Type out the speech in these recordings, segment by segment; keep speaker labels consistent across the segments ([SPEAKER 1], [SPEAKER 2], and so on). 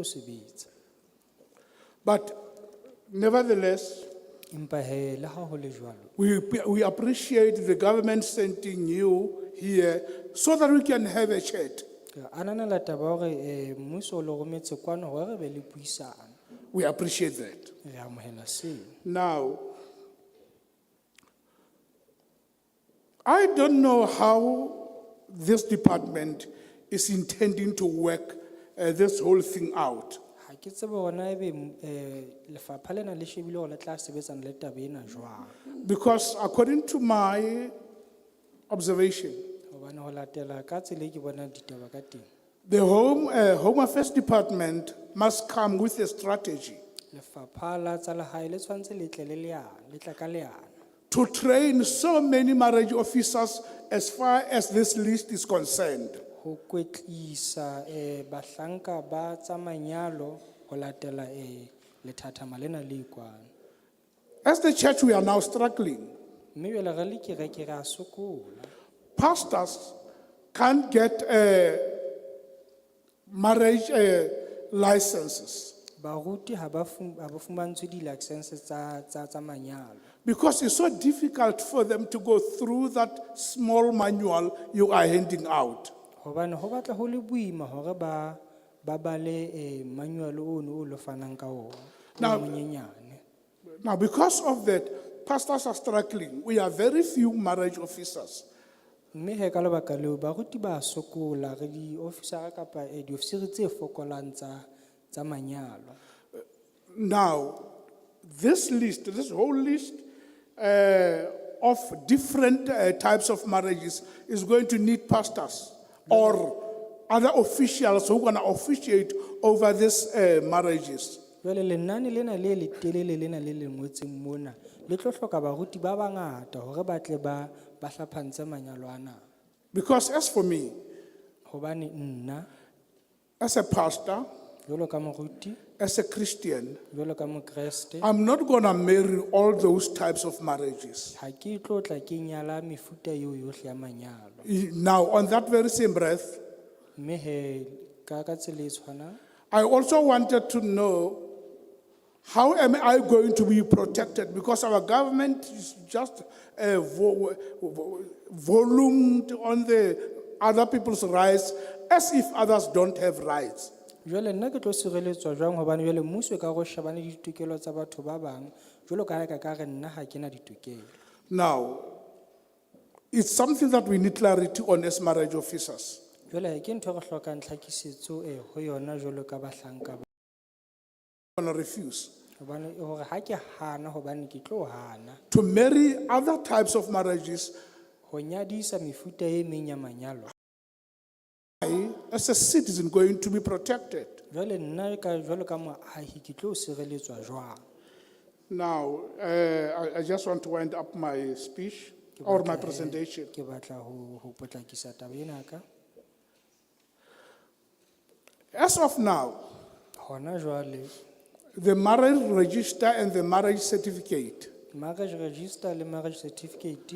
[SPEAKER 1] o sebetsa
[SPEAKER 2] But nevertheless,
[SPEAKER 1] empa he le ha ho le jwalo
[SPEAKER 2] we, we appreciate the government sending you here so that we can have a chat.
[SPEAKER 1] Ke ananela taba ya hore eh, mmuso o le rometse kwano hore re be le puisano
[SPEAKER 2] We appreciate that.
[SPEAKER 1] re amohela seo
[SPEAKER 2] Now, I don't know how this department is intending to work uh, this whole thing out.
[SPEAKER 1] ha ke tsebe hore na ebe mm, eh, lefapha lena le shebile hore le tla sebetsana le taba ena jwang
[SPEAKER 2] Because according to my observation,
[SPEAKER 1] hobane ho latela ka tsela e ke bonang ditaba ka teng
[SPEAKER 2] the Home, uh, Home Affairs Department must come with a strategy
[SPEAKER 1] lefapha la tsa lehae le tshwanetse le tle le leano le tla ka leano
[SPEAKER 2] to train so many marriage officers as far as this list is concerned.
[SPEAKER 1] ho kwetlisa eh, bahlanka ba tsa manyalo ho latela eh, lethathama lena le ikwano
[SPEAKER 2] As the church, we are now struggling.
[SPEAKER 1] mme jwale re le kereke re a sokola
[SPEAKER 2] Pastors can't get uh, marriage uh, licenses
[SPEAKER 1] baruti ha ba fum- ha ba fumantshwe di-license tsa tsa- tsa manyalo
[SPEAKER 2] because it's so difficult for them to go through that small manual you are handing out.
[SPEAKER 1] hobane ho batla ho le boima hore ba ba bale eh, manual ono o lo fanang ka ona o
[SPEAKER 2] Now-
[SPEAKER 1] monyenyane
[SPEAKER 2] Now, because of that, pastors are struggling. We are very few marriage officers.
[SPEAKER 1] mme he ka lebaka leo baruti ba sokola re di-officera kapa eh, diofisiri tse fokolang tsa tsa manyalo
[SPEAKER 2] Now, this list, this whole list uh, of different uh, types of marriages is going to need pastors or other officials who are going to officiate over these uh, marriages.
[SPEAKER 1] jwale lenane lena le letelele lena le lengwetseng mona le tlo hloka baruti ba bangata hore ba tle ba ba hlaphantse manyalo ana
[SPEAKER 2] Because, as for me,
[SPEAKER 1] hobane nna
[SPEAKER 2] as a pastor,
[SPEAKER 1] jwalo ka moruti
[SPEAKER 2] as a Christian,
[SPEAKER 1] jwalo ka mokreste
[SPEAKER 2] I'm not going to marry all those types of marriages.
[SPEAKER 1] ha ke tlo tla ke nyala mefuta eo yohle ya manyalo
[SPEAKER 2] E- Now, on that very same breath,
[SPEAKER 1] mme he ka ka tsela e tshwanang
[SPEAKER 2] I also wanted to know how am I going to be protected because our government is just uh, vo- vo- volumed on the other people's rights as if others don't have rights.
[SPEAKER 1] jwale nna ke tlo sireletswa jwang hobane jwale mmuso e ka go shebane le ditokelo tsa batho ba bang jwalo ka ha e ka ka re nna ha ke na ditokelo
[SPEAKER 2] Now, it's something that we need clarity on as marriage officers.
[SPEAKER 1] jwale ke ntho e re hlokang tlhakisetso e ho yona jwalo ka bahlanka ba
[SPEAKER 2] I'm going to refuse
[SPEAKER 1] hobane hore ha ke hana hobane ke tlo hana
[SPEAKER 2] to marry other types of marriages.
[SPEAKER 1] ho nyadisa mefuta e meng ya manyalo
[SPEAKER 2] I, as a citizen, going to be protected.
[SPEAKER 1] jwale nna ka jwalo ka moahi ke tlo sireletswa jwang
[SPEAKER 2] Now, uh, I, I just want to wind up my speech or my presentation.
[SPEAKER 1] ke batla ho ho potlakisa taba ena ka
[SPEAKER 2] As of now,
[SPEAKER 1] hona jwale
[SPEAKER 2] the marriage register and the marriage certificate
[SPEAKER 1] marriage register le marriage certificate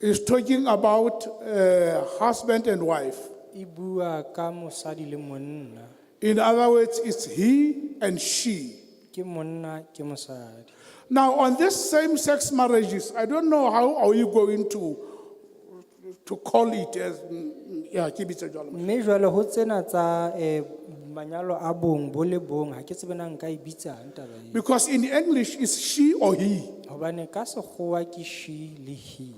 [SPEAKER 2] is talking about uh, husband and wife.
[SPEAKER 1] e bua ka mosadi le monna
[SPEAKER 2] In other words, it's he and she.
[SPEAKER 1] ke monna ke mosadi
[SPEAKER 2] Now, on this same sex marriages, I don't know how are you going to, to call it as, mm, yeah, keep it a jolly.
[SPEAKER 1] mme jwale ho tsena tsa eh, manyalo a bong bo le bong ha ke tsebe na nka e bitsang taba e
[SPEAKER 2] Because in English, it's she or he.
[SPEAKER 1] hobane ka sekgowa ke she le he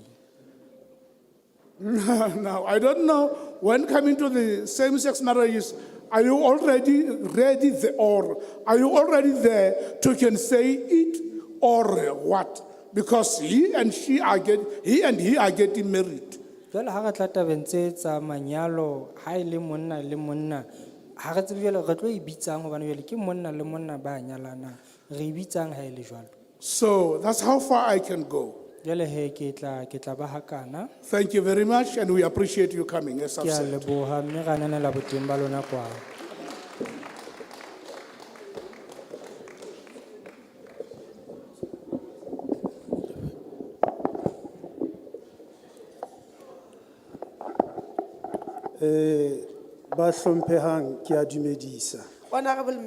[SPEAKER 2] now, I don't know when coming to the same sex marriages, are you already ready the, or are you already there to can say it or what? Because he and she are get, he and he are getting married.
[SPEAKER 1] jwale ha re tla tabeng tse tsa manyalo ha e le monna le monna ha re tsebe jwale re tlo e bitsang hobane jwale ke monna le monna ba nyalanang re e bitsang ha e le jwalo
[SPEAKER 2] So that's how far I can go.
[SPEAKER 1] jwale he ke tla ke tla ba hakana
[SPEAKER 2] Thank you very much, and we appreciate you coming, as I've
[SPEAKER 1] ke a
[SPEAKER 2] said.
[SPEAKER 1] leboha mme ra ananela boteng ba lona kwano
[SPEAKER 3] Eh, ba hlomphehang ke a dumedisa.
[SPEAKER 4] Honorable